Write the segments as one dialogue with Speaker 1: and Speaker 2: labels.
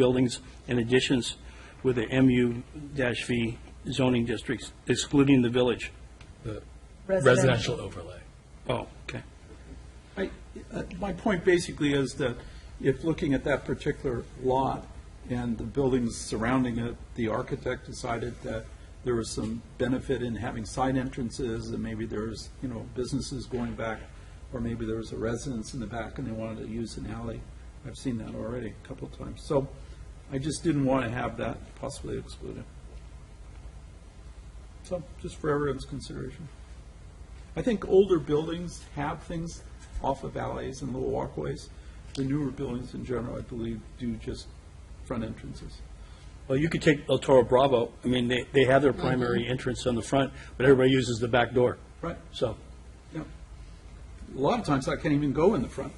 Speaker 1: buildings and additions with the MU-V zoning districts excluding the village.
Speaker 2: the
Speaker 3: Residential.
Speaker 2: residential overlay.
Speaker 1: Oh, okay.
Speaker 4: I- uh, My point basically is that if looking at that particular lot and the buildings surrounding it, the architect decided that there was some benefit in having side entrances, and maybe there's, you know, businesses going back, or maybe there was a residence in the back and they wanted to use an alley. I've seen that already a couple of times. So I just didn't want to have that possibly excluded. So, just for everyone's consideration. I think older buildings have things off of alleys and little walkways. The newer buildings in general, I believe, do just front entrances.
Speaker 1: Well, you could take El Toro Bravo, I mean, they, they have their
Speaker 5: Mm-hmm.
Speaker 1: primary entrance on the front, but everybody uses the back door.
Speaker 4: Right.
Speaker 1: So,
Speaker 4: Yeah. A lot of times I can't even go in the front.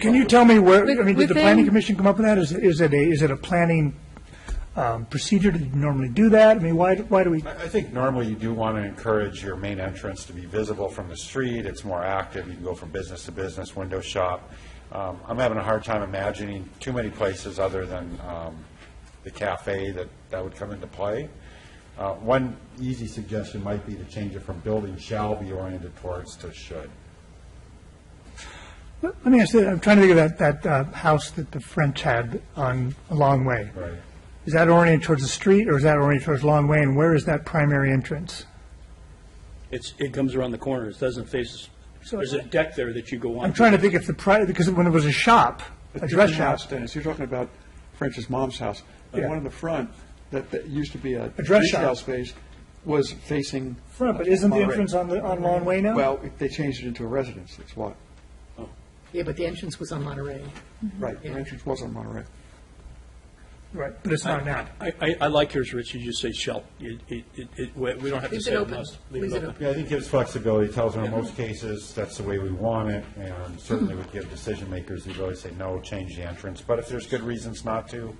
Speaker 5: Can you tell me where, I
Speaker 3: Wi-
Speaker 5: mean, did the
Speaker 3: within-
Speaker 5: planning commission come up with that? Is, is it a, is it a planning um, procedure to normally do that? I mean, why, why do we,
Speaker 6: I I think normally you do want to encourage your main entrance to be visible from the street. It's more active. You can go from business to business, window shop. Um, I'm having a hard time imagining too many places other than um, the cafe that that would come into play. Uh, One easy suggestion might be to change it from building shall be oriented towards to should.
Speaker 5: let me ask you, I'm trying to think of that, that uh, house that the French had on a long way.
Speaker 6: Right.
Speaker 5: Is that oriented towards the street or is that oriented towards long way? And where is that primary entrance?
Speaker 1: it's, it comes around the corner, it doesn't face,
Speaker 5: So-
Speaker 1: there's a deck there that you go on.
Speaker 5: I'm trying to think if the, pri- because when it was a shop, a dress shop,
Speaker 7: house, Dennis, you're talking about French's mom's house. The
Speaker 5: Yeah.
Speaker 7: one in the front that, that used to be a
Speaker 5: A dress
Speaker 7: retail
Speaker 5: shop.
Speaker 7: space was facing.
Speaker 5: Front, but isn't the
Speaker 7: Monterey.
Speaker 5: entrance on the- on Long Way now?
Speaker 7: Well, it- they changed it into a residence, that's why.
Speaker 3: Yeah, but the entrance was on Monterey.
Speaker 5: Mm-hmm.
Speaker 7: Right, the entrance was on Monterey.
Speaker 5: right, but it's not now.
Speaker 1: I, I, I like yours, Rich, you just say shall. It, it, it- it, we we don't have to
Speaker 3: Leaves
Speaker 1: say
Speaker 3: it
Speaker 1: it
Speaker 3: open.
Speaker 1: must.
Speaker 3: Leaves it open.
Speaker 6: Yeah, I think it gives flexibility, tells them in most cases, that's the way we want it, and certainly would give decision makers the ability to say, no, change the entrance, but if there's good reasons not to,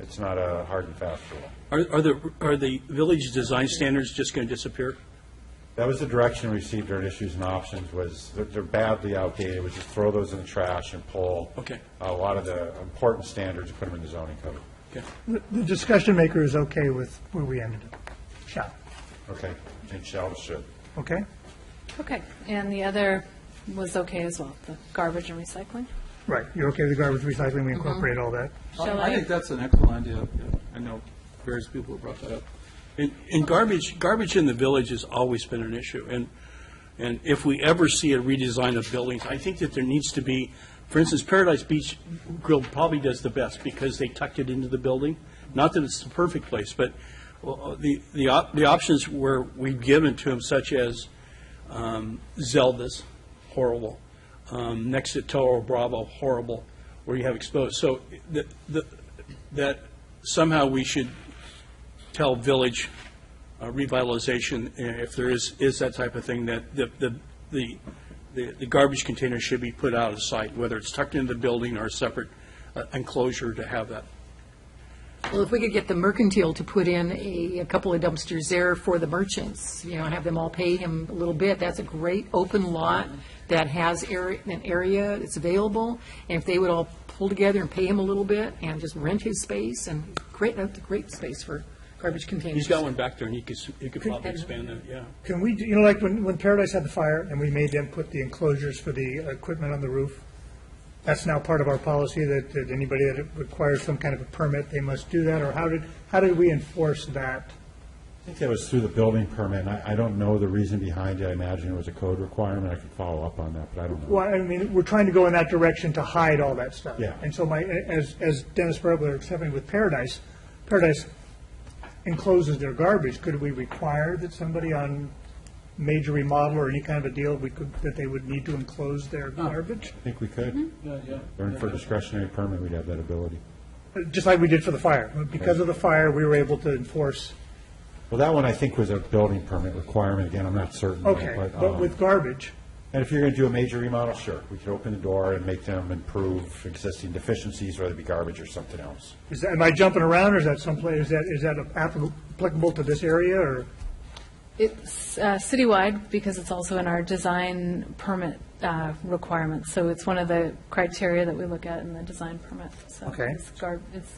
Speaker 6: it's not a hard and fast rule.
Speaker 1: Are, are the, are the village design standards just going to disappear?
Speaker 6: That was the direction we received during issues and options, was they're- they're badly outdated, we just throw those in the trash and pull
Speaker 1: Okay.
Speaker 6: a lot of the important standards and put them in the zoning code.
Speaker 1: Okay.
Speaker 5: The the discussion maker is okay with where we ended up, shop,
Speaker 6: Okay, change shall to should.
Speaker 5: okay?
Speaker 8: Okay, and the other was okay as well, the garbage and recycling?
Speaker 5: Right, you're okay with the garbage recycling, we incorporate all that?
Speaker 8: Shall
Speaker 4: I
Speaker 8: I?
Speaker 4: think that's an excellent idea. Yeah, I know various people have brought that up.
Speaker 1: And, and garbage, garbage in the village has always been an issue, and, and if we ever see a redesign of buildings, I think that there needs to be, for instance, Paradise Beach Grill probably does the best, because they tucked it into the building, not that it's the perfect place, but uh, the, the, op- the options were, we've given to them, such as um, Zelda's, horrible, um, next to Toro Bravo, horrible, where you have exposed, so the, the, that somehow we should tell village uh, revitalization, uh, if there is, is that type of thing, that the, the- the, the the garbage container should be put out of sight, whether it's tucked into the building or a separate uh, enclosure to have that.
Speaker 3: Well, if we could get the mercantile to put in a, a couple of dumpsters there for the merchants, you know, have them all pay him a little bit, that's a great open lot that has area, an area that's available, and if they would all pull together and pay him a little bit and just rent his space, and great, that's a great space for garbage containers.
Speaker 1: He's got one back there, and he could, s- he could probably
Speaker 3: Could-
Speaker 1: expand that, yeah.
Speaker 5: Can we, do- you know, like when, when Paradise had the fire and we made them put the enclosures for the equipment on the roof? That's now part of our policy that, that anybody that requires some kind of a permit, they must do that? Or how did, how did we enforce that?
Speaker 6: I think that was through the building permit, and I, I don't know the reason behind it, I imagine it was a code requirement, I could follow up on that, but I don't know.
Speaker 5: Well, I mean, we're trying to go in that direction to hide all that stuff.
Speaker 6: Yeah.
Speaker 5: And so my, as, as Dennis Brebler was having with Paradise, Paradise encloses their garbage. Could we require that somebody on major remodel or any kind of a deal, we could, that they would need to enclose their garbage?
Speaker 6: I think we could.
Speaker 5: Mm-hmm.
Speaker 6: Yeah, yeah. Learn for discretionary permit, we'd have that ability.
Speaker 5: Just like we did for the fire. Because of the fire, we were able to enforce,
Speaker 6: Well, that one I think was a building permit requirement, again, I'm not certain. of it,
Speaker 5: okay,
Speaker 6: um,
Speaker 5: but with garbage,
Speaker 6: And if you're going to do a major remodel, sure, we could open the door and make them improve existing deficiencies, whether it be garbage or something else.
Speaker 5: is that, am I jumping around, or is that someplace, is that, is that applicable- applicable to this area, or?
Speaker 8: It's uh, citywide because it's also in our design permit uh, uh, requirements, so it's one of the criteria that we look at in the design permit, so.
Speaker 5: Okay.
Speaker 8: it's gar- It's